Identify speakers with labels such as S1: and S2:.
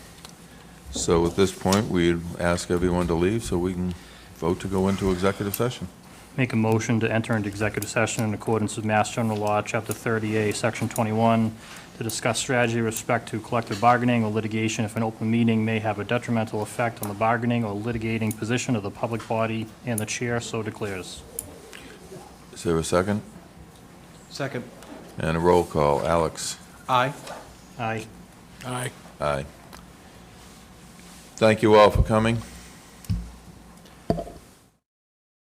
S1: So at this point, we'd ask everyone to leave so we can vote to go into executive session.
S2: Make a motion to enter into executive session in accordance with Mass General Law, Chapter 38, Section 21, to discuss strategy with respect to collective bargaining or litigation if an open meeting may have a detrimental effect on the bargaining or litigating position of the public body, and the chair so declares.
S1: Is there a second?
S3: Second.
S1: And a roll call. Alex?
S3: Aye.
S2: Aye.
S1: Aye. Thank you all for coming.